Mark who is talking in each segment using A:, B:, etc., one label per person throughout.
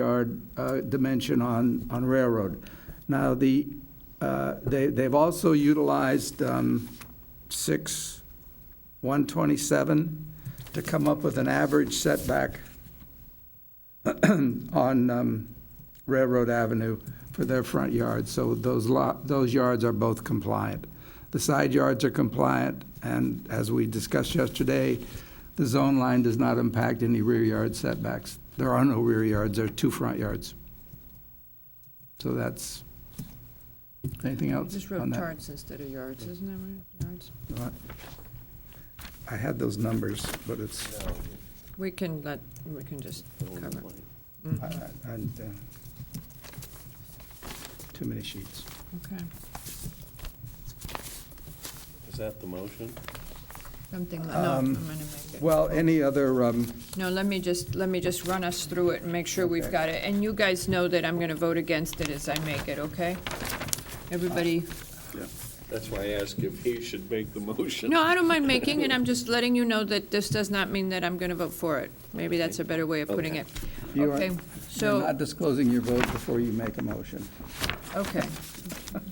A: yard uh, dimension on, on Railroad. Now, the, uh, they, they've also utilized um, six, 127 to come up with an average setback on um, Railroad Avenue for their front yards, so those lot, those yards are both compliant. The side yards are compliant, and as we discussed yesterday, the zone line does not impact any rear yard setbacks. There are no rear yards, there are two front yards. So that's, anything else
B: Just
A: on
B: wrote
A: that?
B: charts instead of yards, isn't that right, yards?
A: I had those numbers, but it's,
B: We can let, we can just cover. it.
A: I- I- and, uh, too many sheets.
B: Okay,
C: Is that the motion?
B: something, no, I'm
A: Um,
B: gonna make it.
A: Well, any other, um,
B: No, let me just, let me just run us through it and make sure we've
A: Okay.
B: got it. And you guys know that I'm gonna vote against it as I make it, okay? Everybody,
C: That's why I asked if he should make the motion.
B: no, I don't mind making it, I'm just letting you know that this does not mean that I'm gonna vote for it. Maybe that's a better way of putting it.
C: Okay.
A: You are-
B: Okay,
A: You're
B: so,
A: not disclosing your vote before you make a motion.
B: okay.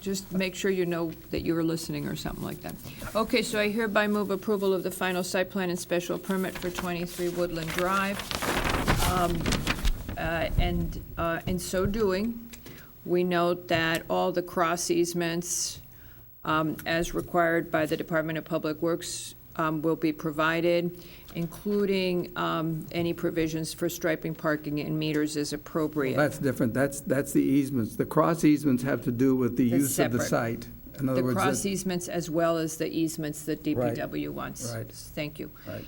B: Just make sure you know that you were listening or something like that. Okay, so I hereby move approval of the final site plan and special permit for 23 Woodland Drive. Um, uh, And uh, in so doing, we note that all the cross easements, um, as required by the Department of Public Works, um, will be provided, including um, any provisions for striping, parking, and meters as appropriate.
A: That's different, that's, that's the easements. The cross easements have to do with the
B: That's
A: use of the
B: separate.
A: site. In other
B: The
A: words,
B: cross e-
A: that-
B: easements as well as the easements that DPW wants.
A: right.
B: Thank you.
A: right.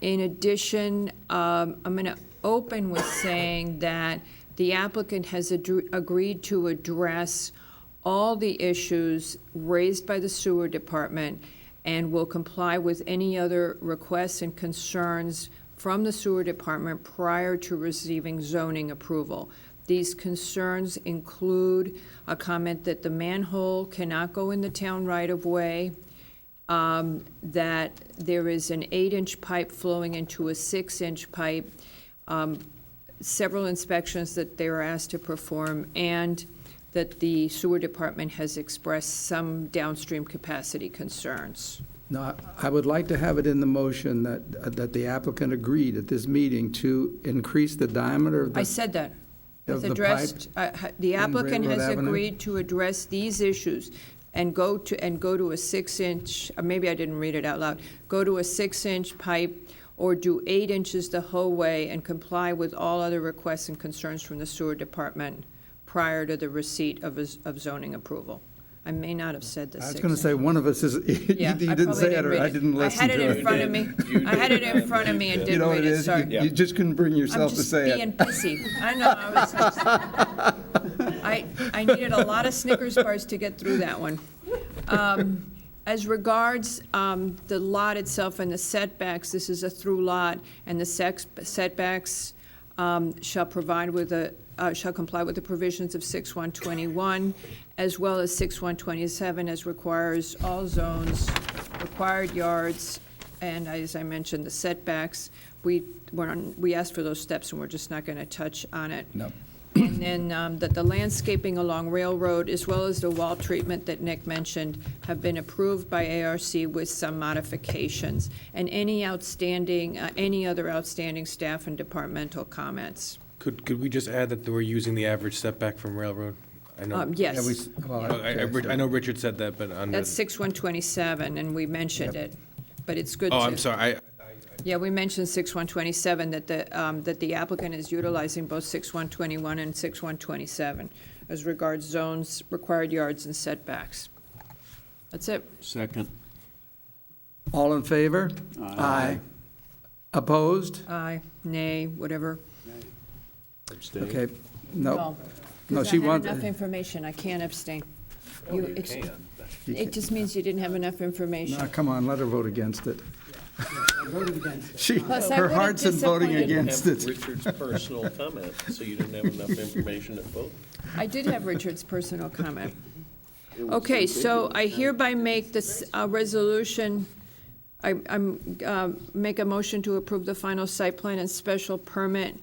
B: In addition, um, I'm going to open with saying that the applicant has adr- agreed to address all the issues raised by the sewer department and will comply with any other requests and concerns from the sewer department prior to receiving zoning approval. These concerns include a comment that the manhole cannot go in the town right-of-way, um, that there is an eight-inch pipe flowing into a six-inch pipe, um, several inspections that they were asked to perform, and that the sewer department has expressed some downstream capacity concerns.
A: Now, I would like to have it in the motion that, that the applicant agreed at this meeting to increase the diameter of
B: I
A: the,
B: said that.
A: Of
B: It's
A: the pipe
B: addressed, uh, ha- the
A: in
B: applicant
A: Railroad
B: has
A: Avenue?
B: agreed to address these issues and go to, and go to a six-inch, uh, maybe I didn't read it out loud, go to a six-inch pipe or do eight inches the whole way and comply with all other requests and concerns from the sewer department prior to the receipt of, a z- of zoning approval. I may not have said the
A: I
B: six.
A: was going to say, one of us is, you
B: Yeah, I
A: didn't
B: probably
A: say it, or
B: read
A: I didn't listen
B: I had
A: to
B: it in
A: it.
B: front of me,
C: You
B: I had it
C: did.
B: in front of me and
A: You
B: didn't
A: know what
B: read
A: it
B: it,
A: is? You-
B: sorry.
A: You just couldn't bring yourself to say it.
B: I'm just being pissy. I know. I, was just, I I needed a lot of Snickers bars to get through that one. Um, as regards um, the lot itself and the setbacks, this is a through lot, and the sex, setbacks um, shall provide with a uh, shall comply with the provisions of 6121 as well as 6127 as requires all zones, required yards, and as I mentioned, the setbacks. We, we're on, we asked for those steps, and we're just not going to touch on it.
A: No.
B: And then um, that the landscaping along Railroad, as well as the wall treatment that Nick mentioned, have been approved by ARC with some modifications. And any outstanding, uh, any other outstanding staff and departmental comments.
D: Could, could we just add that we're using the average setback from railroad? I know,
B: Um,
D: I,
A: Yeah, we s-
B: Yes,
A: well,
D: I- I know Richard said that, but under.
B: that's 6127, and we mentioned it, but it's good to.
D: Oh, I'm sorry, I,
B: Yeah, we mentioned 6127, that the, um, that the applicant is utilizing both 6121 and 6127 as regards zones, required yards, and setbacks. That's it.
C: Second.
A: All in favor? Aye. Opposed?
B: Aye, nay, whatever.
A: Okay, no. No,
B: Because
A: she wants.
B: I had enough information, I can't abstain. Oh, You
C: You
B: ex-
C: can.
A: You
B: It just means you didn't have enough
A: No,
B: information.
A: come on, let her vote against it. She,
B: Plus, I
A: her
B: would've
A: heart's in voting
B: disappointed-
A: against
C: Have
A: it.
C: Richard's personal comment, so you didn't have enough information to vote.
B: I did have Richard's personal comment. Okay, so I hereby make this uh, resolution, uh, I, I'm, um, make a motion to approve the final site plan and special permit